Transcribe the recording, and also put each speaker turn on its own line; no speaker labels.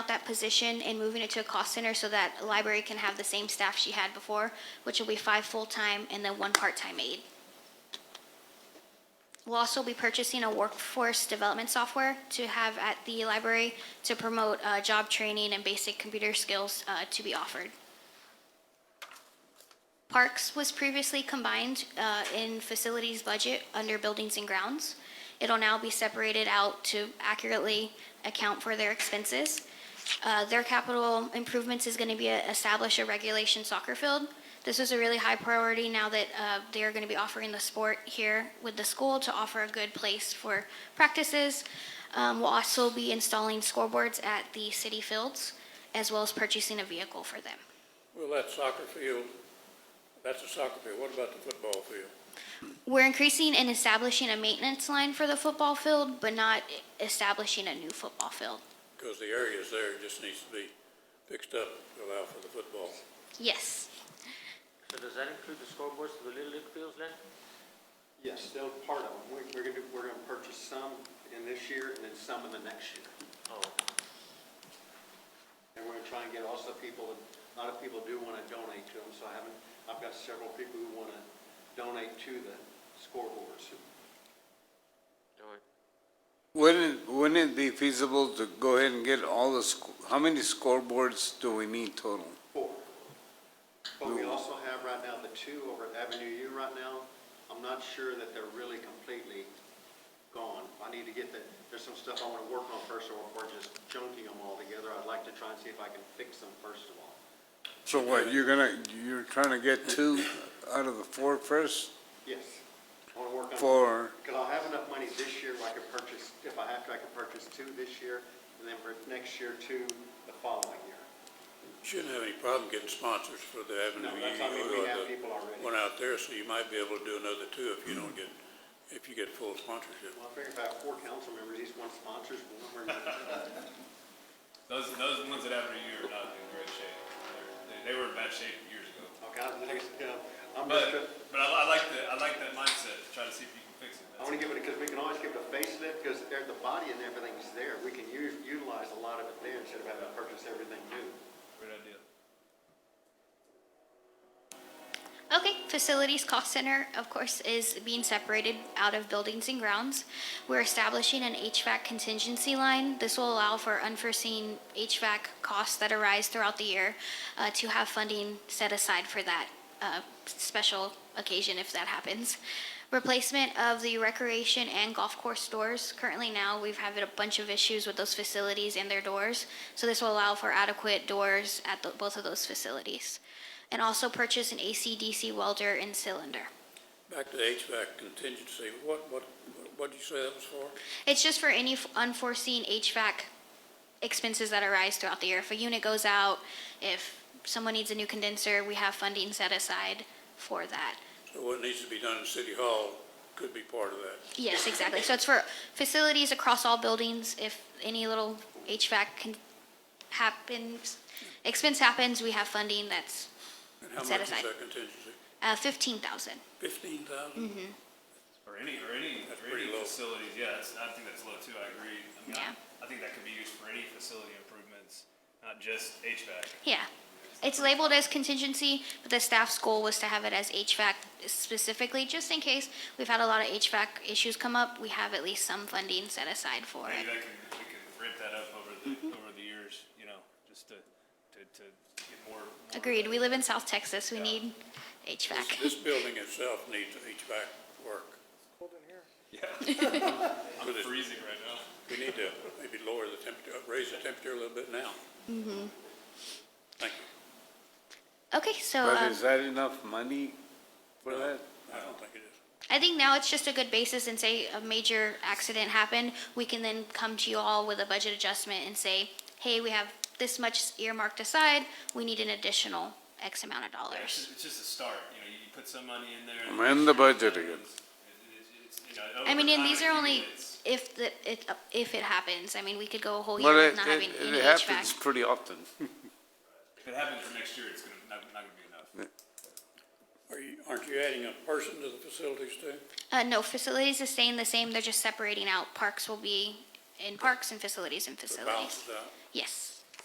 position and moving it to a cost center so that library can have the same staff she had before, which will be five full-time and then one part-time aide. We'll also be purchasing a workforce development software to have at the library to promote uh, job training and basic computer skills uh, to be offered. Parks was previously combined uh, in facilities budget under buildings and grounds. It'll now be separated out to accurately account for their expenses. Uh, Their capital improvements is going to be a- establish a regulation soccer field. This is a really high priority now that uh, they are going to be offering the sport here with the school to offer a good place for practices. Um, We'll also be installing scoreboards at the city fields, as well as purchasing a vehicle for them.
Well, that soccer field, that's a soccer field. What about the football field?
We're increasing and establishing a maintenance line for the football field, but not e-, establishing a new football field.
Because the areas there just needs to be fixed up to allow for the football.
Yes.
So does that include the scoreboards for the Little League fields then?
Yes, they'll part of them. We're, we're gonna, we're gonna purchase some in this year and then some in the next year.
Oh,
And we're gonna try and get also people, a lot of people do wanna donate to them, so I haven't, I've got several people who wanna donate to the scoreboards.
all right.
Wouldn't, wouldn't it be feasible to go ahead and get all the, sc- how many scoreboards do we need total?
Four. But we also have right now the two over at Avenue U right now. I'm not sure that they're really completely gone. I need to get the, there's some stuff I wanna work on first or, or just junking them all together. I'd like to try and see if I can fix them first of all.
So what, you're gonna, you're trying to get two out of the four first
Yes. I wanna work on.
for,
Because I'll have enough money this year where I could purchase, if I have to, I could purchase two this year, and then for next year, two the following year.
Shouldn't have any problem getting sponsors for the Avenue
No,
U
that's, I mean, we
or
have
the
people already.
one out there, so you might be able to do another two if you don't get, if you get full sponsorship.
Well, I figure if I have four council members, each one sponsors one, we're,
Those those ones that have a year are not in great shape. They're- They, they were in bad shape years ago.
okay, I'm just, you know, I'm just,
But
tr-
but I, I like the I like that mindset. to Try to see if you can fix it.
I
That's
want to give it, because we can always give it a facelift, because there, the body and everything's there. We can u- utilize a lot of it there instead of having to purchase everything new.
a great idea.
Okay, facilities cost center, of course, is being separated out of buildings and grounds. We're establishing an HVAC contingency line. This will allow for unforeseen HVAC costs that arise throughout the year uh, to have funding set aside for that uh, special occasion if that happens. Replacement of the recreation and golf course doors. Currently now, we've had a bunch of issues with those facilities and their doors. So this will allow for adequate doors at the- both of those facilities and also purchase an AC/DC welder and cylinder.
Back to the HVAC contingency, what, what, what'd you say that was for?
It's just for any f- unforeseen HVAC expenses that arise throughout the year. If a unit goes out, if someone needs a new condenser, we have funding set aside for that.
So what needs to be done in City Hall could be part of that.
Yes, exactly. So it's for facilities across all buildings. If any little HVAC can happens, expense happens, we have funding that's
And how
Set
much is
aside.
that contingency?
uh, fifteen thousand.
Fifteen thousand?
Or any or any
That's
or
pretty
any
low.
facilities. Yeah, that's, I think that's low too. I agree. I mean,
Yeah.
I, I think that could be used for any facility improvements, not just HVAC.
Yeah. It's labeled as contingency, but the staff's goal was to have it as HVAC specifically, just in case we've had a lot of HVAC issues come up. We have at least some funding set aside for it.
Maybe that can we can ramp that up over the
Mm-hmm.
over the years. You know, just to to, to get more, more
Agreed. We live in South Texas. We need
This,
HVAC.
this building itself needs HVAC work.
I'm freezing right now.
We need to maybe lower the temperature, raise the temperature a little bit now. Thank you.
Okay, so
but
um,
is that enough money for that?
I don't think it is.
I think now it's just a good basis and say a major accident happened, we can then come to you all with a budget adjustment and say, hey, we have this much earmarked aside. We need an additional X amount of
Yeah, It's
dollars.
just, it's just a start, you know, you put some money in there. and-
Amend the budget again.
It- it- it's, you know,
I mean,
over
and these
time
are only
accumulates.
if the, it, if it happens. I mean, we could go a whole year
Well,
with
it,
not having
it-
any
it happens
HVAC.
pretty often.
If it happens for next year, it's gonna, not, not gonna be enough.
Are you, aren't you adding a person to the facilities too?
Uh, no, facilities is staying the same, they're just separating out. Parks will be in parks and facilities and
That
facilities.
balances out?
Yes.